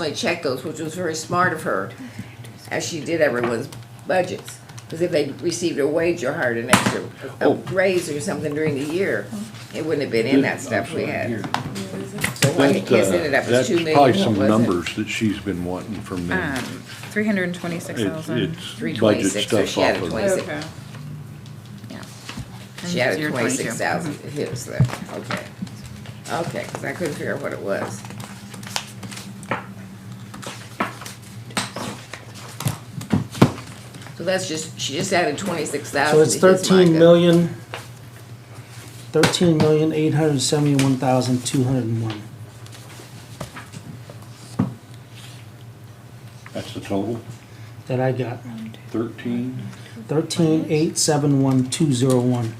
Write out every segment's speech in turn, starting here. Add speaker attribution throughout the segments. Speaker 1: actually checked those, which was very smart of her, as she did everyone's budgets. Because if they received a wage or hired an extra a
Speaker 2: Oh.
Speaker 1: raise or something during the year, it wouldn't have been in that stuff we had. So what
Speaker 2: That,
Speaker 1: it
Speaker 2: uh,
Speaker 1: is ended up as
Speaker 2: that's
Speaker 1: two million.
Speaker 2: probably some
Speaker 1: wasn't it? Uh,
Speaker 2: numbers that she's been wanting from me.
Speaker 3: Um, three hundred and twenty-six
Speaker 2: It's,
Speaker 3: thousand.
Speaker 2: it's budget
Speaker 1: 326, so
Speaker 2: stuff
Speaker 1: she had
Speaker 2: off
Speaker 1: a
Speaker 2: of.
Speaker 1: twenty-
Speaker 3: Okay. Yeah.
Speaker 1: She had a
Speaker 3: Zero
Speaker 1: twenty-six
Speaker 3: 22.
Speaker 1: thousand, it was there, okay. Okay, 'cause I couldn't figure out what it was. So that's just, she just added twenty-six
Speaker 4: So
Speaker 1: thousand
Speaker 4: it's
Speaker 1: to his
Speaker 4: thirteen
Speaker 1: MICA.
Speaker 4: million, thirteen million, eight hundred seventy-one thousand, two hundred and one.
Speaker 2: That's the total,
Speaker 4: That I got,
Speaker 2: thirteen?
Speaker 4: thirteen, eight, seven, one, two, zero, one.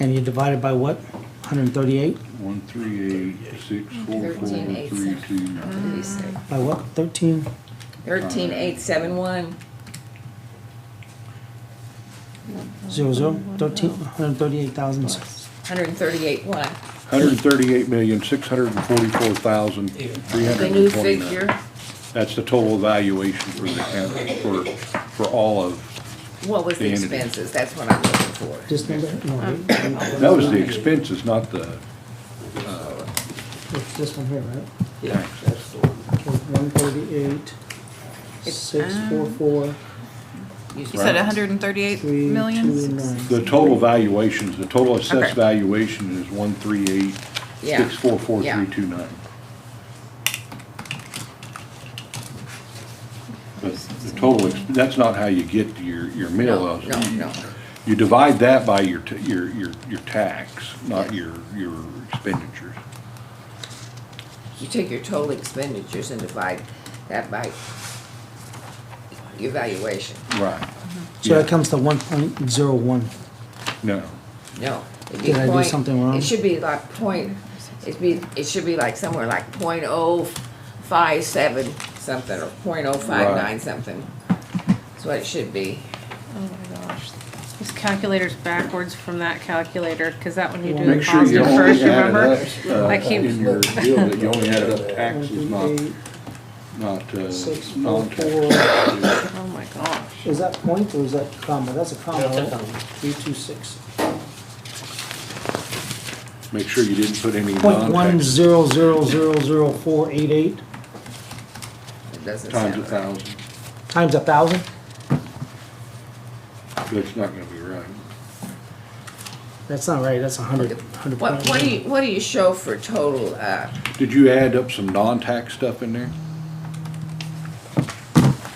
Speaker 4: And you divide it by what? Hundred and thirty-eight,
Speaker 2: One, three, eight, six, four, four,
Speaker 1: Thirteen, eight,
Speaker 2: three,
Speaker 1: six.
Speaker 2: two.
Speaker 4: by what, thirteen?
Speaker 1: Thirteen eight seven one,
Speaker 4: Zero zero, thirteen, hundred and thirty-eight thousand,
Speaker 1: hundred and thirty-eight one.
Speaker 2: Hundred and thirty-eight million, six hundred and forty-four thousand, three
Speaker 1: The
Speaker 2: hundred
Speaker 1: new
Speaker 2: and twenty-nine.
Speaker 1: figure,
Speaker 2: That's the total valuation for the county, for, for all of,
Speaker 1: what was the
Speaker 2: The entity.
Speaker 1: expenses? That's what I'm looking for.
Speaker 4: this number, no, wait,
Speaker 2: that was the expenses, not the,
Speaker 4: it's this one here, right?
Speaker 5: Yeah, that's the one.
Speaker 4: Okay, one thirty-eight, six, four, four,
Speaker 3: You said
Speaker 2: Right.
Speaker 3: hundred and thirty-eight
Speaker 4: three, two,
Speaker 3: million?
Speaker 4: nine.
Speaker 2: the total valuations, the total
Speaker 3: Okay.
Speaker 2: assessed valuation is one, three, eight,
Speaker 1: Yeah.
Speaker 2: six, four, four,
Speaker 1: Yeah.
Speaker 2: three, two, nine. But the total, ex- that's not how you get to your, your mill.
Speaker 1: No, no, no.
Speaker 2: You divide that by your, t- your, your, your tax, not
Speaker 1: Yeah.
Speaker 2: your, your expenditures.
Speaker 1: You take your total expenditures and divide that by your valuation.
Speaker 2: Right.
Speaker 4: So
Speaker 2: Yeah.
Speaker 4: that comes to one point zero one.
Speaker 2: No,
Speaker 1: No. it'd be
Speaker 4: Did I do
Speaker 1: point-
Speaker 4: something wrong?
Speaker 1: It should be like point, it'd be, it should be like somewhere like point oh five seven something, or point oh five nine
Speaker 2: Right.
Speaker 1: something. That's what it should be.
Speaker 3: Oh my gosh.
Speaker 6: This calculator's backwards from that calculator, because that one you do the
Speaker 2: make sure you
Speaker 6: positive
Speaker 2: only
Speaker 6: first,
Speaker 2: add
Speaker 6: remember?
Speaker 2: it up, uh,
Speaker 6: Like he-
Speaker 2: in your deal, that you only add up taxes, not,
Speaker 4: Eight,
Speaker 2: not,
Speaker 4: six,
Speaker 2: uh,
Speaker 4: four,
Speaker 2: non-tax.
Speaker 6: Oh my gosh.
Speaker 4: Is that point or is that comma? That's a comma,
Speaker 5: That's a
Speaker 4: right?
Speaker 5: comma.
Speaker 4: Three, two, six.
Speaker 2: Make sure you didn't put any
Speaker 4: Point one
Speaker 2: non-tax
Speaker 4: zero zero zero zero four eight eight
Speaker 1: It doesn't
Speaker 2: times a
Speaker 1: sound right.
Speaker 2: thousand,
Speaker 4: times a thousand?
Speaker 2: that's not gonna be right.
Speaker 4: That's not right, that's a hundred, hundred.
Speaker 1: What, what do you, what do you show for total, uh,
Speaker 2: Did you add up some non-tax stuff in there?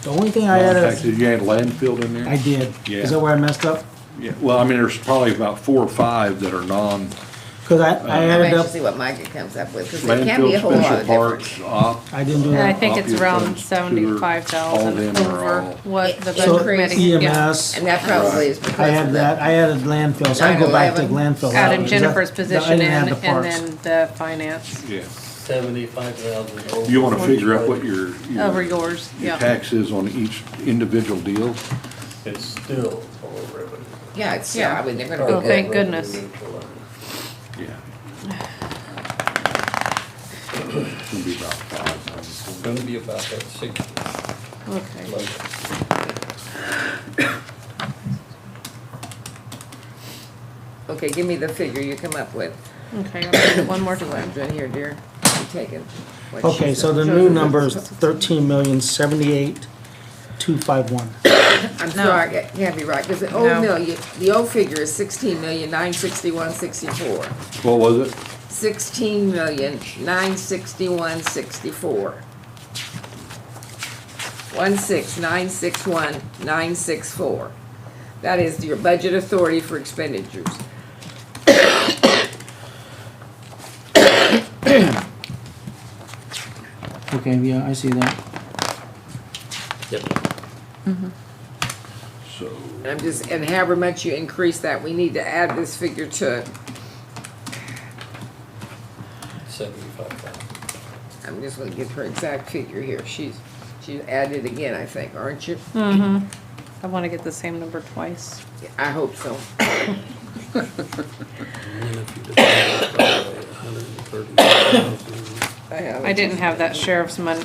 Speaker 4: The only thing I added,
Speaker 2: Non-tax,
Speaker 4: is-
Speaker 2: Did you add landfill in there?
Speaker 4: I did.
Speaker 2: Yeah.
Speaker 4: Is that where I messed up?
Speaker 2: Yeah, well, I mean, there's probably about four or five that are non,
Speaker 4: Cause I, I
Speaker 2: Uh,
Speaker 1: I'm
Speaker 4: added
Speaker 1: anxious to
Speaker 4: up,
Speaker 1: see what Micah comes up with, because it can't be a
Speaker 2: landfill,
Speaker 1: whole lot of
Speaker 2: special
Speaker 1: difference.
Speaker 2: parks, op.
Speaker 4: I didn't do
Speaker 6: And I
Speaker 4: that.
Speaker 6: think it's around
Speaker 2: Obvious ones, sewer,
Speaker 6: seventy-five
Speaker 2: all them
Speaker 6: thousand
Speaker 2: are
Speaker 6: over
Speaker 2: all-
Speaker 6: what the
Speaker 4: So
Speaker 6: budget
Speaker 1: Increase.
Speaker 6: committee, yeah.
Speaker 4: EMS,
Speaker 1: And that probably is
Speaker 4: I
Speaker 1: because of
Speaker 4: had that,
Speaker 1: the,
Speaker 4: I added landfill, so I go back to
Speaker 1: 9/11.
Speaker 4: landfill. out,
Speaker 6: Added
Speaker 4: because that-
Speaker 6: Jennifer's
Speaker 4: that-
Speaker 6: position in,
Speaker 4: I didn't
Speaker 6: and
Speaker 4: have the parks.
Speaker 6: then the finance
Speaker 2: Yeah,
Speaker 5: Seventy-five thousand over.
Speaker 2: you wanna figure out what your,
Speaker 6: over
Speaker 2: your,
Speaker 6: yours,
Speaker 2: your
Speaker 6: yeah.
Speaker 2: tax is on each individual deal?
Speaker 5: It's still over revenue.
Speaker 1: yeah, it's, yeah, I mean, they're gonna
Speaker 6: Oh,
Speaker 1: be good.
Speaker 6: thank goodness.
Speaker 2: Yeah. It's gonna be about
Speaker 5: It's
Speaker 2: five.
Speaker 5: gonna be about that six,
Speaker 6: Okay,
Speaker 5: like,
Speaker 1: Okay, give me the figure you come up with.
Speaker 6: okay, I'll read it one more
Speaker 1: What I'm
Speaker 6: time.
Speaker 1: doing here, dear, I'm taking. what she
Speaker 4: Okay, so
Speaker 1: said.
Speaker 4: the new number is thirteen million, seventy-eight, two, five, one.
Speaker 1: I'm sorry, I can't be right, because the old
Speaker 6: No.
Speaker 1: million, the old figure is sixteen million, nine sixty-one, sixty-four.
Speaker 2: What was it?
Speaker 1: Sixteen million, nine sixty-one, sixty-four. One six, nine six one, nine six four. That is your budget authority for expenditures.
Speaker 4: Okay, yeah, I see that.
Speaker 5: yep.
Speaker 2: So,
Speaker 1: And I'm just, and however much you increase that, we need to add this figure to it.
Speaker 5: Seventy-five thousand.
Speaker 1: I'm just gonna give her exact figure here. She's, she added again, I think, aren't you?
Speaker 6: I wanna get the same number twice.
Speaker 1: I hope so.
Speaker 5: And then if you divide it by a hundred and thirty thousand,
Speaker 1: I have.
Speaker 6: I didn't have that sheriff's mon,